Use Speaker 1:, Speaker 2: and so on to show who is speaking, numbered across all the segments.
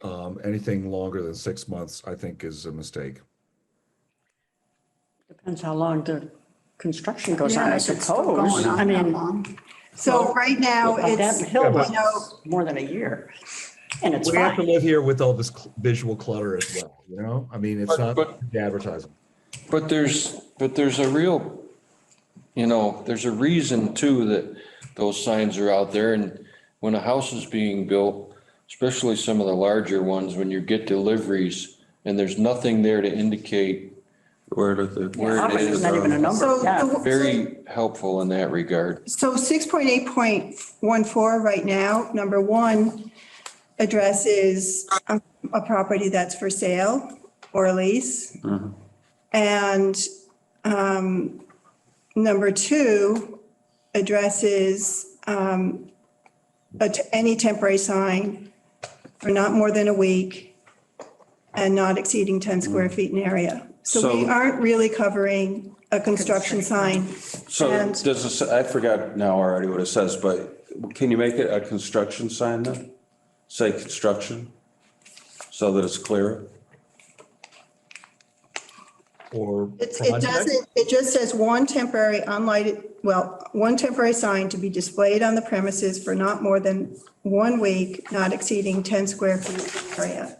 Speaker 1: Um, anything longer than six months, I think is a mistake.
Speaker 2: Depends how long the construction goes on,
Speaker 3: Yeah,
Speaker 2: I
Speaker 3: if it's still
Speaker 2: suppose.
Speaker 3: going
Speaker 2: I
Speaker 3: on that
Speaker 2: mean,
Speaker 3: long. So right now,
Speaker 2: on
Speaker 3: it's,
Speaker 2: that hill
Speaker 3: you
Speaker 2: was
Speaker 3: know,
Speaker 2: more than a year, and it's
Speaker 1: We have to
Speaker 2: fine.
Speaker 1: live here with all this cl- visual clutter as well, you know? I mean, it's
Speaker 4: But-
Speaker 1: not
Speaker 4: but-
Speaker 1: the advertising.
Speaker 4: But there's, but there's a real, you know, there's a reason too that those signs are out there. And when a house is being built, especially some of the larger ones, when you get deliveries and there's nothing there to indicate,
Speaker 5: Where did the?
Speaker 4: where it
Speaker 2: Obviously,
Speaker 4: is.
Speaker 2: it's not even a number,
Speaker 3: uh, so,
Speaker 2: yeah.
Speaker 3: the-
Speaker 4: Very helpful in that regard.
Speaker 3: so 6.8.14 right now, number one addresses a, a property that's for sale or lease. And, um, number two addresses, um, a t- any temporary sign for not more than a week and not exceeding 10 square feet in area. So we
Speaker 5: So-
Speaker 3: aren't really covering a construction sign.
Speaker 5: So
Speaker 3: And-
Speaker 5: does this, I forgot now already what it says, but can you make it a construction sign then? Say construction, so that it's clear?
Speaker 1: Or
Speaker 3: It's, it
Speaker 1: project.
Speaker 3: doesn't, it just says one temporary unlighted, well, one temporary sign to be displayed on the premises for not more than one week, not exceeding 10 square feet area.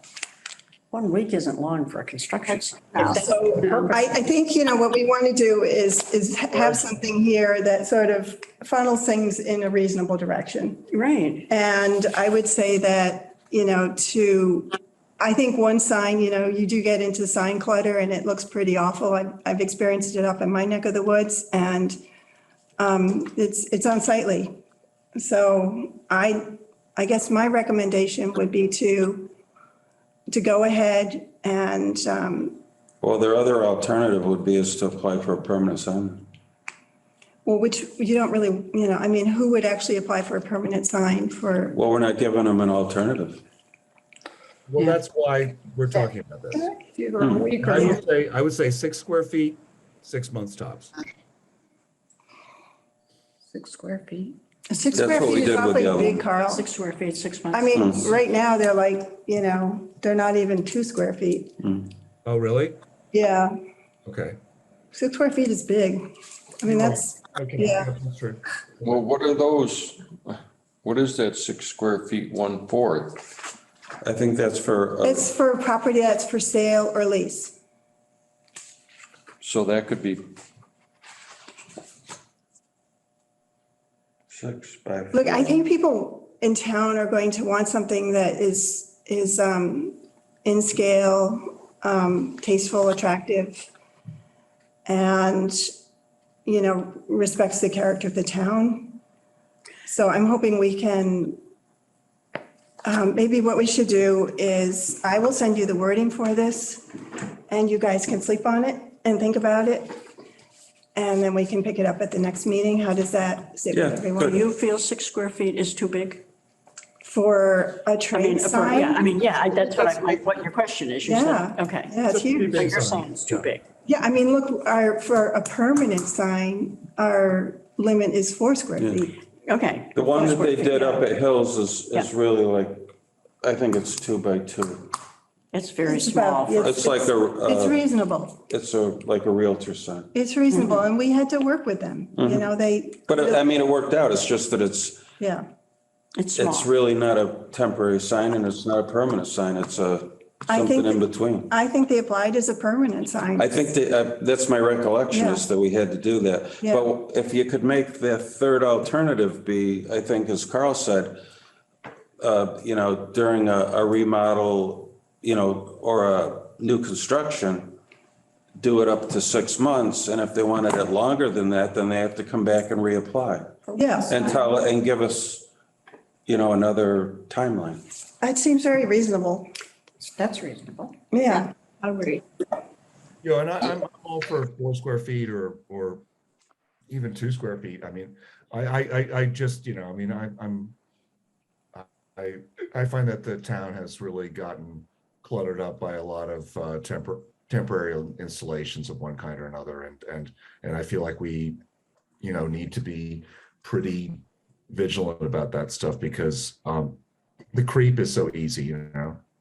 Speaker 2: One week isn't long for a construction site.
Speaker 3: So I, I think, you know, what we want to do is, is have something here that sort of funnels things in a reasonable direction.
Speaker 2: Right,
Speaker 3: And I would say that, you know, to, I think one sign, you know, you do get into sign clutter and it looks pretty awful. I've, I've experienced it up in my neck of the woods and um, it's, it's unsightly. So I, I guess my recommendation would be to, to go ahead and, um,
Speaker 5: Well, their other alternative would be is to apply for a permanent sign.
Speaker 3: well, which you don't really, you know, I mean, who would actually apply for a permanent sign for?
Speaker 5: Well, we're not giving them an alternative.
Speaker 1: Well, that's why we're talking about this.
Speaker 2: or a week
Speaker 1: I
Speaker 2: or,
Speaker 1: would say, I would say six square feet, six months tops.
Speaker 2: six square feet,
Speaker 3: Six
Speaker 5: That's
Speaker 3: square
Speaker 5: what we
Speaker 3: feet is
Speaker 5: did with
Speaker 3: awfully
Speaker 5: the other
Speaker 3: big,
Speaker 5: one.
Speaker 3: Carl.
Speaker 2: six square feet, six
Speaker 3: I
Speaker 2: months.
Speaker 3: mean, right now, they're like, you know, they're not even two square feet.
Speaker 1: Oh, really?
Speaker 3: Yeah,
Speaker 1: Okay.
Speaker 3: six square feet is big. I mean, that's,
Speaker 1: Okay.
Speaker 3: Yeah.
Speaker 1: That's true.
Speaker 4: Well, what are those? What is that six square feet, one fourth?
Speaker 5: I think that's for, uh,
Speaker 3: it's for property that's for sale or lease.
Speaker 4: So that could be
Speaker 5: six by.
Speaker 3: Look, I think people in town are going to want something that is, is um in scale, um, tasteful, attractive, and, you know, respects the character of the town. So I'm hoping we can Um, Maybe what we should do is, I will send you the wording for this, and you guys can sleep on it and think about it. And then we can pick it up at the next meeting. How does that sit with
Speaker 5: Yeah,
Speaker 2: Do
Speaker 3: everyone?
Speaker 2: you feel six square feet is too big?
Speaker 3: For a
Speaker 2: I mean,
Speaker 3: trade
Speaker 2: for- yeah, I
Speaker 3: sign?
Speaker 2: mean, yeah, I- that's what I, like, what your question is, you
Speaker 3: Yeah.
Speaker 2: said, okay.
Speaker 3: Yeah, it's huge.
Speaker 2: So you're saying it's too big.
Speaker 3: Yeah, I mean, look, our, for a permanent sign, our limit is four square feet.
Speaker 2: Okay.
Speaker 5: The one that they did up at Hills is, is
Speaker 2: Yeah.
Speaker 5: really like, I think it's two by two.
Speaker 2: It's very
Speaker 3: It's about-
Speaker 2: small. for-
Speaker 5: It's like a,
Speaker 3: It's
Speaker 5: uh,
Speaker 3: reasonable.
Speaker 5: it's a, like a realtor sign.
Speaker 3: It's reasonable, and we had to work with them. You know, they,
Speaker 5: mm-hmm. But uh, um, I mean, it worked out. It's just that it's,
Speaker 3: yeah.
Speaker 2: It's small.
Speaker 5: it's really not a temporary sign and it's not a permanent sign. It's a,
Speaker 3: I think-
Speaker 5: something in between.
Speaker 3: I think they applied as a permanent sign.
Speaker 5: I think that, uh, that's my recollection
Speaker 3: Yeah.
Speaker 5: is that we had to do that.
Speaker 3: Yeah.
Speaker 5: But if you could make the third alternative be, I think, as Carl said, uh, you know, during a, a remodel, you know, or a new construction, do it up to six months. And if they wanted it longer than that, then they have to come back and reapply.
Speaker 3: Yeah.
Speaker 5: And tell, and give us, you know, another timeline.
Speaker 3: That seems very reasonable.
Speaker 2: That's reasonable.
Speaker 3: Yeah.
Speaker 2: I agree.
Speaker 1: You know, and I, I'm all for four square feet or, or even two square feet. I mean, I, I, I, I just, you know, I mean, I, I'm, I, I find that the town has really gotten cluttered up by a lot of, uh, tempor- temporary installations of one kind or another. And, and, and I feel like we, you know, need to be pretty vigilant about that stuff because, um, the creep is so easy, you know?